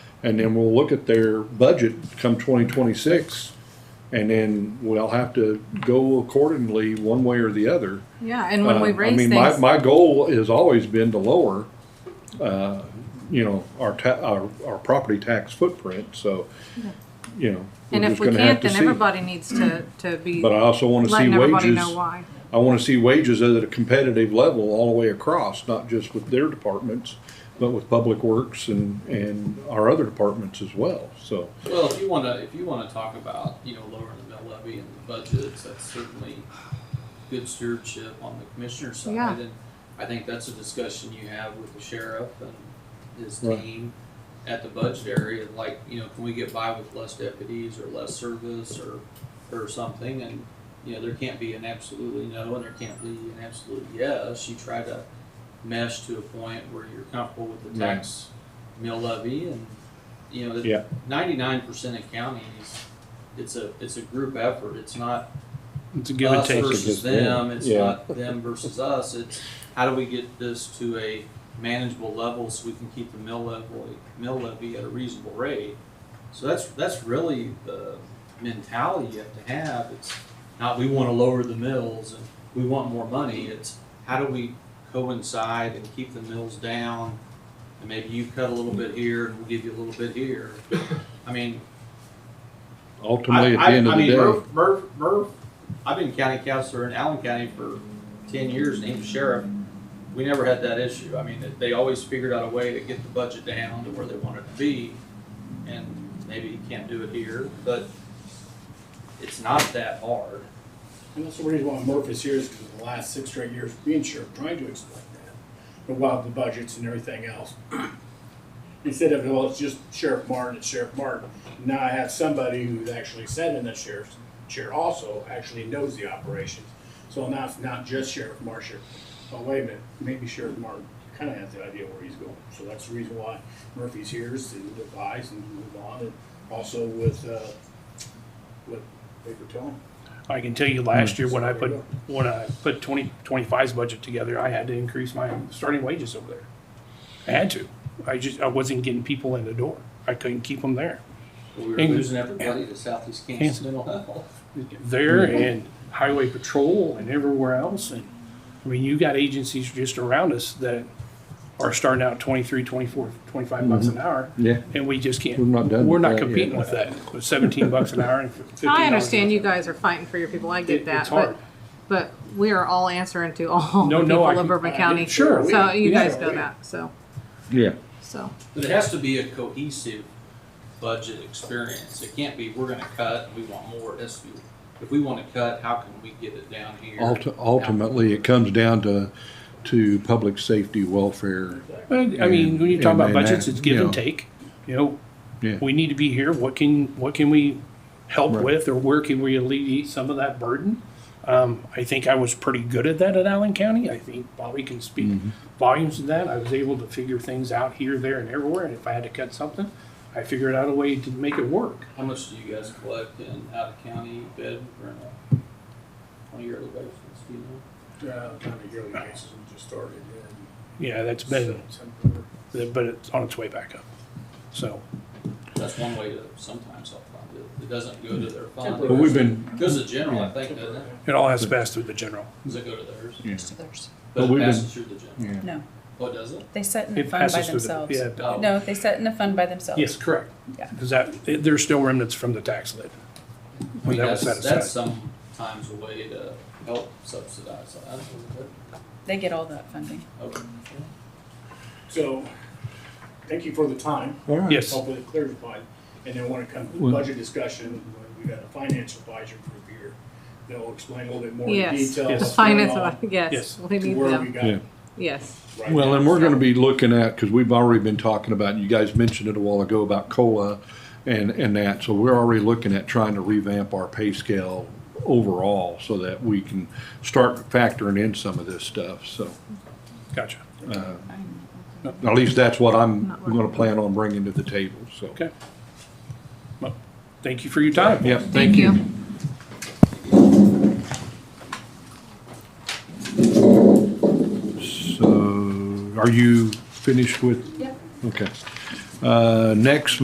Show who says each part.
Speaker 1: And then we'll look at their budget come twenty twenty-six, and then we'll have to go accordingly, one way or the other.
Speaker 2: Yeah, and when we
Speaker 1: Uh,
Speaker 2: raise
Speaker 1: I mean,
Speaker 2: things,
Speaker 1: my, my goal has always been to lower, uh, you know, our ta- our, our property tax footprint, so, you know. we're
Speaker 2: and if
Speaker 1: just
Speaker 2: we
Speaker 1: gonna have
Speaker 2: can't,
Speaker 1: to
Speaker 2: then
Speaker 1: see.
Speaker 2: everybody needs to, to be
Speaker 1: But I also wanna see
Speaker 2: letting everybody
Speaker 1: wages,
Speaker 2: know why.
Speaker 1: I wanna see wages at a competitive level all the way across, not just with their departments, but with Public Works and, and our other departments as well, so.
Speaker 3: Well, if you want to, if you want to talk about, you know, lowering the mill levy and the budgets, that's certainly good stewardship on the commissioner's side.
Speaker 2: Yeah.
Speaker 3: And I think that's a discussion you have with the sheriff and his
Speaker 1: Right.
Speaker 3: team at the budget area, like, you know, can we get by with less deputies or less service or, or something? And, you know, there can't be an absolutely no and there can't be an absolute yes. You try to mesh to a point where you're comfortable with the
Speaker 1: Right.
Speaker 3: tax mill levy and, you know,
Speaker 1: Yeah.
Speaker 3: ninety-nine percent of counties, it's a, it's a group effort, it's not
Speaker 4: It's a give and
Speaker 3: us
Speaker 4: take.
Speaker 3: versus
Speaker 1: Just them.
Speaker 3: them, it's
Speaker 1: Yeah.
Speaker 3: not them versus us, it's how do we get this to a manageable level so we can keep the mill level, mill levy at a reasonable rate? So that's, that's really the mentality you have to have, it's not we wanna lower the mills and we want more money, it's how do we coincide and keep the mills down? And maybe you cut a little bit here and we'll give you a little bit here. I mean,
Speaker 1: Ultimately, at
Speaker 3: I-
Speaker 1: the end
Speaker 3: I-
Speaker 1: of the
Speaker 3: I mean,
Speaker 1: day,
Speaker 3: Murph, Murph, Murph, I've been county counselor in Allen County for ten years, and he was sheriff. We never had that issue. I mean, they- they always figured out a way to get the budget down to where they wanted to be. And maybe you can't do it here, but it's not that hard.
Speaker 5: And that's the reason why Murph is here is because the last six straight years being sheriff, trying to explain that. But while the budgets and everything else, instead of, well, it's just Sheriff Martin, it's Sheriff Martin. Now I have somebody who's actually sat in the sheriff's chair also, actually knows the operations. So now it's not just Sheriff Marshall. Oh, wait a minute, maybe Sheriff Martin kind of has the idea where he's going. So that's the reason why Murphy's here is to advise and move on. And also with, uh, with paper telling.
Speaker 4: I can tell you last year when I put,
Speaker 5: Sorry.
Speaker 4: when I put twenty, twenty-five's budget together, I had to increase my starting wages over there. I had to. I just, I wasn't getting people in the door. I couldn't keep them there.
Speaker 3: We were
Speaker 4: And-
Speaker 3: losing everybody to Southeast Kansas mental health.
Speaker 4: There
Speaker 1: Mm-hmm.
Speaker 4: and highway patrol and everywhere else. And, I mean, you got agencies just around us that are starting out twenty-three, twenty-four, twenty-five bucks an hour.
Speaker 1: Mm-hmm. yeah,
Speaker 4: And we just can't,
Speaker 1: We're not done
Speaker 4: we're
Speaker 1: with
Speaker 4: not
Speaker 1: that yet.
Speaker 4: competing with that. With seventeen bucks an hour and fifteen
Speaker 2: I understand you guys are fighting for your people, I get that,
Speaker 4: It's hard.
Speaker 2: but, but we are all answering to all the
Speaker 4: No, no,
Speaker 2: people
Speaker 4: I
Speaker 2: of
Speaker 4: can-
Speaker 2: Bourbon
Speaker 4: I-
Speaker 2: County.
Speaker 4: sure, we-
Speaker 2: So you
Speaker 4: yeah,
Speaker 2: guys know
Speaker 4: we-
Speaker 2: that, so,
Speaker 1: yeah.
Speaker 2: so,
Speaker 3: But it has to be a cohesive budget experience. It can't be, we're gonna cut, and we want more. It has to be, if we wanna cut, how can we get it down here?
Speaker 1: Ulti- Ultimately, it comes down to, to public safety, welfare,
Speaker 4: Well, I mean, when you talk
Speaker 1: And-
Speaker 4: about
Speaker 1: and
Speaker 4: budgets,
Speaker 1: that,
Speaker 4: it's give
Speaker 1: you know.
Speaker 4: and take. You know,
Speaker 1: yeah.
Speaker 4: we need to be here. What can, what can we help
Speaker 1: Right.
Speaker 4: with or where can we alleviate some of that burden? Um, I think I was pretty good at that at Allen County. I think Bobby can speak
Speaker 1: Mm-hmm.
Speaker 4: volumes to that. I was able to figure things out here, there, and everywhere. And if I had to cut something, I figured out a way to make it work.
Speaker 3: How much do you guys collect in out of county bid for a twenty yearly basis, do you know?
Speaker 5: Uh, kind of yearly basis, we just started in
Speaker 4: Yeah, that's been,
Speaker 5: September.
Speaker 4: but it's on its way back up. So,
Speaker 3: That's one way to sometimes help fund it. It doesn't go to their fund.
Speaker 1: But we've been,
Speaker 3: It Goes to general, I think, doesn't it?
Speaker 4: it all has to pass through the general.
Speaker 3: Does it go to theirs?
Speaker 1: But
Speaker 3: But
Speaker 1: we've been-
Speaker 3: it passes through the general.
Speaker 1: yeah.
Speaker 6: No,
Speaker 3: What does it?
Speaker 6: they set in a
Speaker 4: It
Speaker 6: fund by
Speaker 4: passes through the-
Speaker 6: themselves.
Speaker 4: Yeah,
Speaker 3: Oh.
Speaker 6: No, they set in a fund by themselves.
Speaker 4: Yes, correct.
Speaker 6: Yeah.
Speaker 4: Because that, it- there's still remnants from the tax lid.
Speaker 3: I mean,
Speaker 4: That was
Speaker 3: that's,
Speaker 4: set aside.
Speaker 3: that's sometimes a way to help subsidize that. isn't it?
Speaker 6: They get all that funding.
Speaker 3: Okay.
Speaker 5: So, thank you for the time.
Speaker 1: All right.
Speaker 4: Yes.
Speaker 5: Hopefully it clarified. And then when it comes to the
Speaker 1: Well-
Speaker 5: budget discussion, when we got a finance advisor group here that will explain a little bit more in
Speaker 2: yes,
Speaker 5: detail.
Speaker 2: the
Speaker 5: what's
Speaker 2: finance,
Speaker 5: going on,
Speaker 2: of- yes,
Speaker 4: Yes.
Speaker 2: we
Speaker 5: to
Speaker 2: need
Speaker 5: Where we
Speaker 2: them,
Speaker 5: got
Speaker 1: Yeah.
Speaker 2: yes.
Speaker 5: right
Speaker 1: Well,
Speaker 5: now.
Speaker 1: and we're gonna be looking at, because we've already been talking about, you guys mentioned it a while ago about COLA and, and that, so we're already looking at trying to revamp our pay scale overall so that we can start factoring in some of this stuff, so.
Speaker 4: Gotcha.
Speaker 1: At least that's what I'm gonna plan on bringing to the table, so.
Speaker 4: Okay. Well, Thank you for your time.
Speaker 1: Yep, thank you. So, are you finished with?
Speaker 6: Yep.
Speaker 1: Okay. Uh, next,